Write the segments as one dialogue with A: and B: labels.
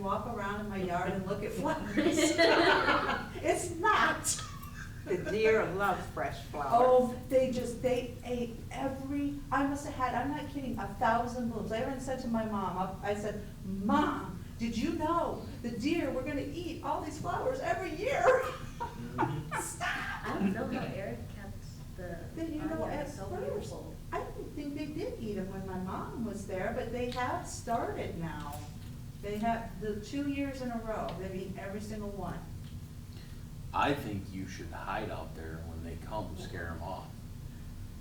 A: walk around in my yard and look at flowers. It's not.
B: The deer love fresh flowers.
A: Oh, they just, they ate every, I must have had, I'm not kidding, a thousand blooms. I even said to my mom, I I said, Mom, did you know the deer were gonna eat all these flowers every year?
B: Mm-hmm.
A: Stop!
C: I don't know how Eric kept the.
A: Then you know,
C: barnyard
A: at
C: so
A: first,
C: beautiful.
A: I didn't think they did eat them when my mom was there, but they have started now. They have, the two years in a row, they've eaten every single one.
D: I think you should hide out there when they come, scare them off.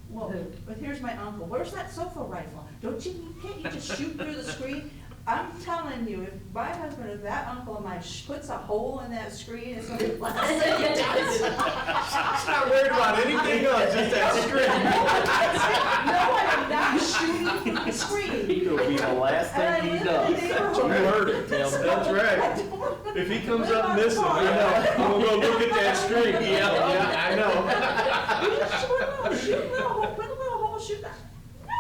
A: Well, but here's my uncle, where's that sofa rifle? Don't you, can't you just shoot through the screen? I'm telling you, if my husband or that uncle of mine sh- puts a hole in that screen, it's gonna be blasted.
E: not worried about anything else, just
A: No, I'm not shooting from the screen.
D: It'll be the last
A: And I
D: thing he
A: live in the
D: does.
A: neighborhood.
E: You heard it, Tim. That's right.
A: I don't-
E: If he comes up
A: I'm
E: missing,
A: sorry.
E: we know. We'll go look at that screen.
D: Yeah, yeah,
E: I know.
A: You just put a little, shoot a little hole, put a little hole, shoot that.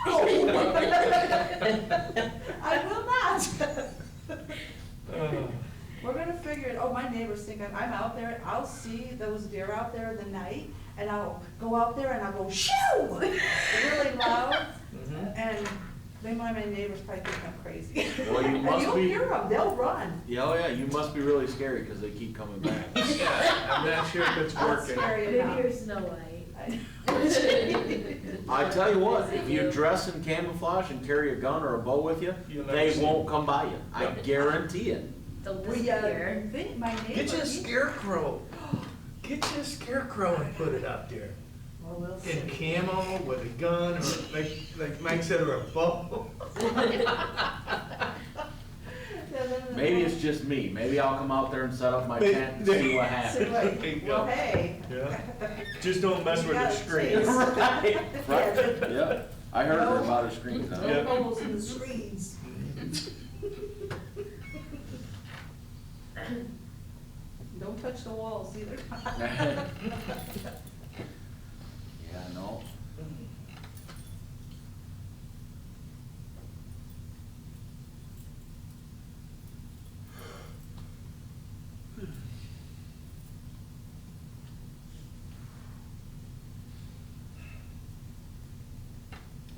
A: No! I will not.
E: Uh,
A: We're gonna figure it, oh, my neighbors think I'm, I'm out there, I'll see those deer out there in the night, and I'll go out there and I'll go shoo! Really loud,
E: mm-hmm.
A: and they, my, my neighbors probably think I'm crazy.
D: Well, you
A: And
D: must
A: you'll
D: be-
A: hear them, they'll run.
D: Yeah, oh yeah, you must be really scary because they keep coming back.
E: Yeah, I'm not sure if it's
A: I'll scare
E: working.
A: you
C: Maybe
A: now.
C: you're Snow White.
D: I tell you what, if you dress in camouflage and carry a gun or a bow with you,
E: You'll never
D: they
E: see
D: won't come by you. I guarantee it.
C: The
A: We, uh,
C: disappear.
A: think my neighbor.
E: Get you a
A: he-
E: scarecrow. Get you a scarecrow and put it up there.
A: Well, we'll
E: In
A: see.
E: camo, with a gun, or like, like Mike said, or a bow.
D: Maybe it's just me. Maybe I'll come out there and set up my
E: They-
D: tent and see what
A: So,
D: happens.
A: like,
E: There you go.
A: Well, hey.
E: Yeah. Just don't mess
A: You
E: with the
A: got a
E: screen.
A: chance.
D: Right,
A: Yeah.
D: right, yeah. I heard her about her screen though.
E: Yeah.
A: No holes in the screens. Don't touch the walls either.
D: Yeah, no.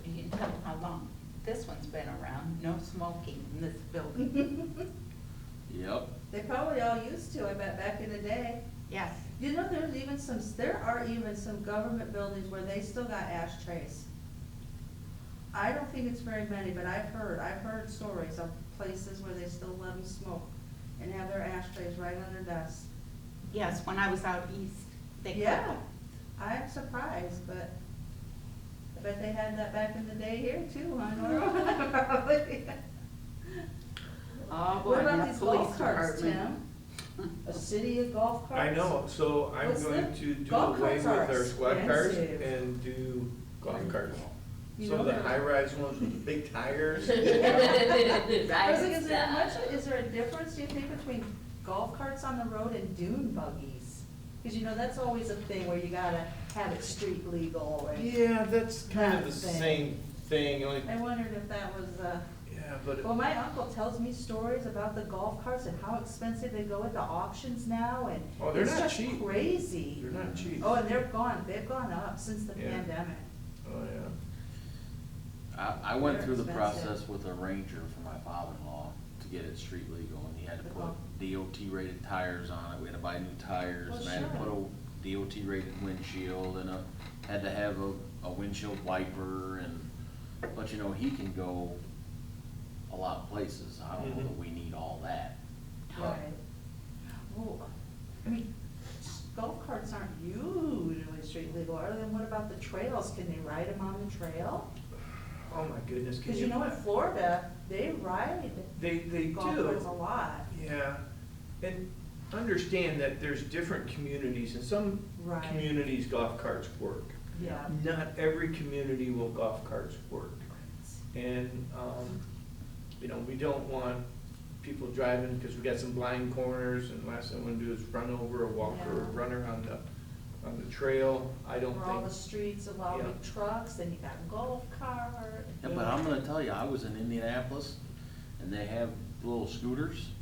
B: You can tell how long this one's been around, no smoking in this building.
D: Yep.
A: They probably all used to, I bet, back in the day.
B: Yes,
A: You know, there's even some, there are even some government buildings where they still got ashtrays. I don't think it's very many, but I've heard, I've heard stories of places where they still let them smoke and have their ashtrays right on their desks.
B: yes, when I was out east, they could.
A: Yeah, I'm surprised, but, but they had that back in the day here too, I know. Probably.
B: Oh, boy,
A: What about
B: that
A: these
B: police
A: golf carts,
B: department.
A: Tim? A city of golf carts?
E: I know, so I'm
A: What's
E: going
A: that?
E: to do
A: Golf
E: away
A: carts
E: with
A: are
E: our squad cars
A: expensive.
E: and do golf carts.
A: You know
E: So the
A: they're-
E: high-rise ones with the big tires.
A: I was like, is there
C: Right.
A: much, is there a difference, do you think, between golf carts on the road and dune buggies? Because you know, that's always a thing where you gotta have it street legal, and
E: Yeah, that's kind
A: That
E: of the
A: thing.
E: same thing,
A: I
E: like,
A: wondered if that was, uh,
E: yeah, but.
A: well, my uncle tells me stories about the golf carts and how expensive they go at the auctions now, and
E: Oh, they're
A: it's
E: not
A: just
E: cheap.
A: crazy.
E: They're not cheap.
A: Oh, and they're gone, they've gone up since the
E: Yeah.
A: pandemic.
E: Oh, yeah.
D: I, I went
A: They're
D: through the
A: expensive.
D: process with a ranger for my father-in-law to get it street legal, and he had to put
A: Oh.
D: DOT rated tires on it, we had to buy new tires,
A: Well,
D: and I had to put
A: sure.
D: a DOT rated windshield, and a, had to have a, a windshield wiper, and, but you know, he can go a lot of places, I don't know
E: Mhm.
D: that we need all that.
A: Right. Well, I mean, golf carts aren't usually street legal, other than what about the trails? Can they ride them on the trail?
E: Oh, my goodness. can
A: Because you know in Florida, they ride
E: They, they do.
A: golf carts a lot.
E: Yeah, and understand that there's different communities, and some
A: Right.
E: communities golf carts work.
A: Yeah.
E: Not every community will golf carts work. And, um, you know, we don't want people driving, because we got some blind corners, and last thing I want to do is run over a walker or
A: Yeah.
E: runner on the, on the trail. I don't
A: Where all the
E: think,
A: streets of all
E: Yeah.
A: the trucks, then you got a golf cart.
D: Yeah, but I'm gonna tell you, I was in Indianapolis, and they have little scooters,